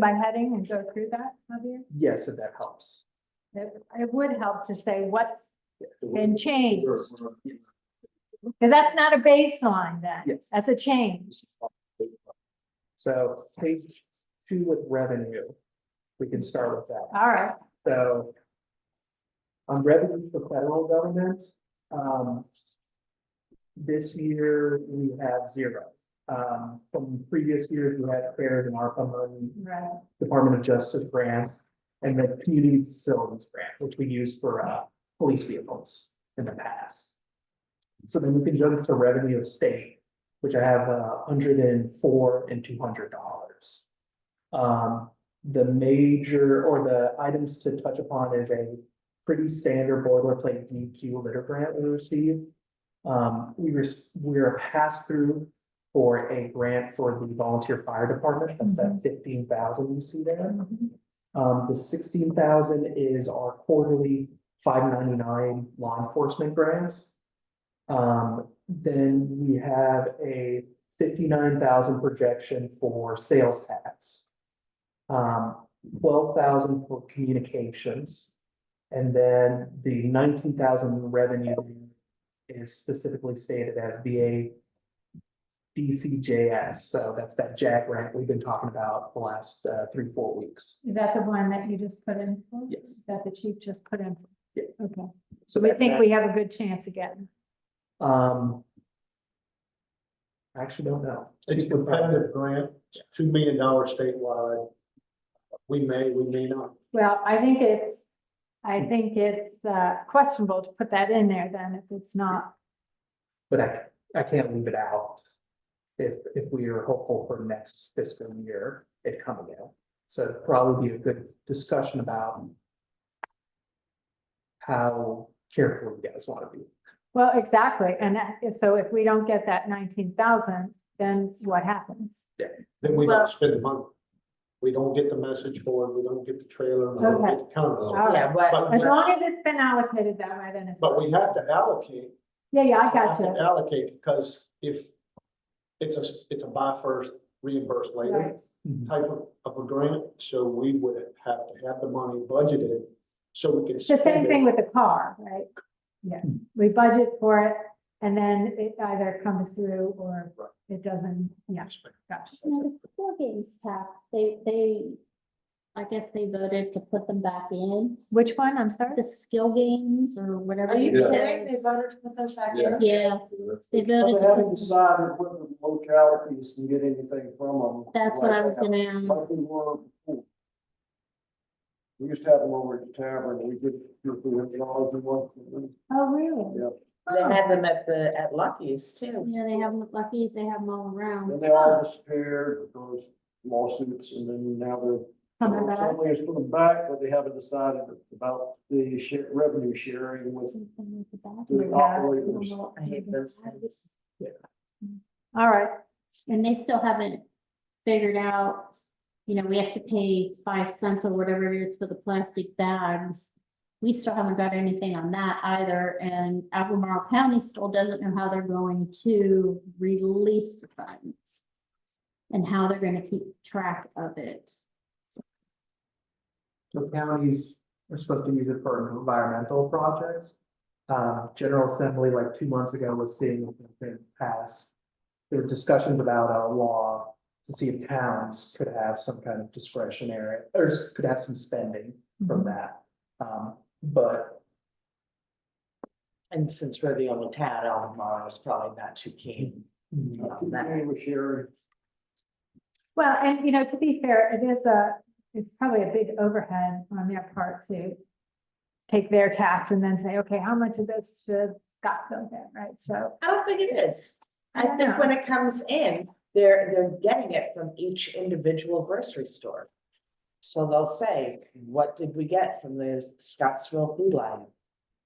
by heading and go through that, Javier? Yes, if that helps. It, it would help to say what's The been changed, word- word- yes. because that's not a baseline then. Yes. That's a change. So page two with revenue, we can start with that. All right, So on revenue for federal government, um, this year we have zero. Um, from previous years, we had fairs and ARPA money, right. Department of Justice grants, and the community facilities grant, which we used for, uh, police vehicles in the past. So then we can jump to revenue of state, which I have a hundred and four and two hundred dollars. Um, the major or the items to touch upon is a pretty standard boilerplate DQ litter grant we received. Um, we were, we're passed through for a grant for the volunteer fire department. That's that fifteen thousand you see there. Um, the sixteen thousand is our quarterly five ninety-nine law enforcement grants. Um, then we have a fifty-nine thousand projection for sales tax. Um, twelve thousand for communications. And then the nineteen thousand revenue is specifically stated as VA DCJS, so that's that JAG grant we've been talking about the last, uh, three, four weeks. Is that the one that you just put in? for? Yes. That the chief just put in? for? Yeah. Okay, So we that- think that- we have a good chance again. Um. I Actually don't know. It's a competitive grant, it's two million dollars statewide. We may, we may not. Well, I think it's, I think it's uh, questionable to put that in there then if it's not. But I, I can't leave it out. If, if we are hopeful for next fiscal year, it coming out. So it'd probably be a good discussion about. How careful you guys want to be. Well, exactly. And that- so if we don't get that nineteen thousand, then what happens? Then we Well- don't spend the money. We don't get the message board, we don't get the trailer, we don't get the All counter. right. Yeah, but, But, As we- long as it's been allocated that way, then it's, but we have to allocate. yeah, yeah, I got have to you. Allocate, because if it's a, it's a buy first, reimburse later Right. type of, of a grant, so we would have to have the money budgeted so we can It's the same spend thing it. with the car, right? Yeah, we budget for it and then it either comes through or Right. it doesn't, yeah. gotcha. Now, the Four games tax, they, they, I guess they voted to put them back in, Which one? I'm sorry? the skill games or whatever. it is. voted to put those back in? Yeah. Yeah, they But they voted to haven't put, them- decided whether the localities can get anything from them. that's what I was like that, gonna, ask. Like we were before. We used to have them over at the tavern, we did, do we had dollars and one. Oh, really? Oh, Yeah. they had them at the, at Lucky's too. yeah, they have Lucky's, they have them all around. Then they all disappeared, those lawsuits, and then now they're, Coming back? somebody has put them back, but they haven't decided about the share, revenue sharing with Something with the back. the Yeah. operators. I hate those things. All right, And they still haven't figured out, you know, we have to pay five cents or whatever it is for the plastic bags. We still haven't got anything on that either, and Albemarle County still doesn't know how they're going to release the funds. And how they're gonna keep track of it. So counties are supposed to use it for environmental projects. Uh, General Assembly, like two months ago, was seeing if it pass. There were discussions about a law to see if towns could have some kind of discretionary, or could have some spending from that. Um, but And since we're the only town, Albemarle is probably not too keen. mm, I think They were sharing, well, and you know, to be fair, it is a, it's probably a big overhead on their part to take their tax and then say, okay, how much of this should Scottsville get, right? So, I don't think it is. I think when it comes in, they're, they're getting it from each individual grocery store. So they'll say, what did we get from the Scottsville food line?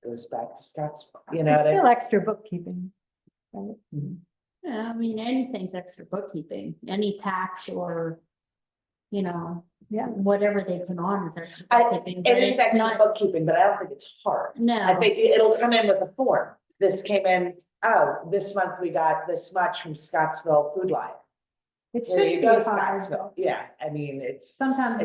Goes back to Scottsville, you know, it's what I- still extra bookkeeping. Yeah, I mean, anything's extra bookkeeping, any tax or, you know, Yeah. whatever they put on is extra I- bookkeeping. but and it's it's actually not- bookkeeping, but I don't think it's hard. No. I think it- it'll come in with a form. This came in, oh, this month we got this much from Scottsville Food Lion. It There should you be go, hard, Scottsville, yeah, I mean, it's. sometimes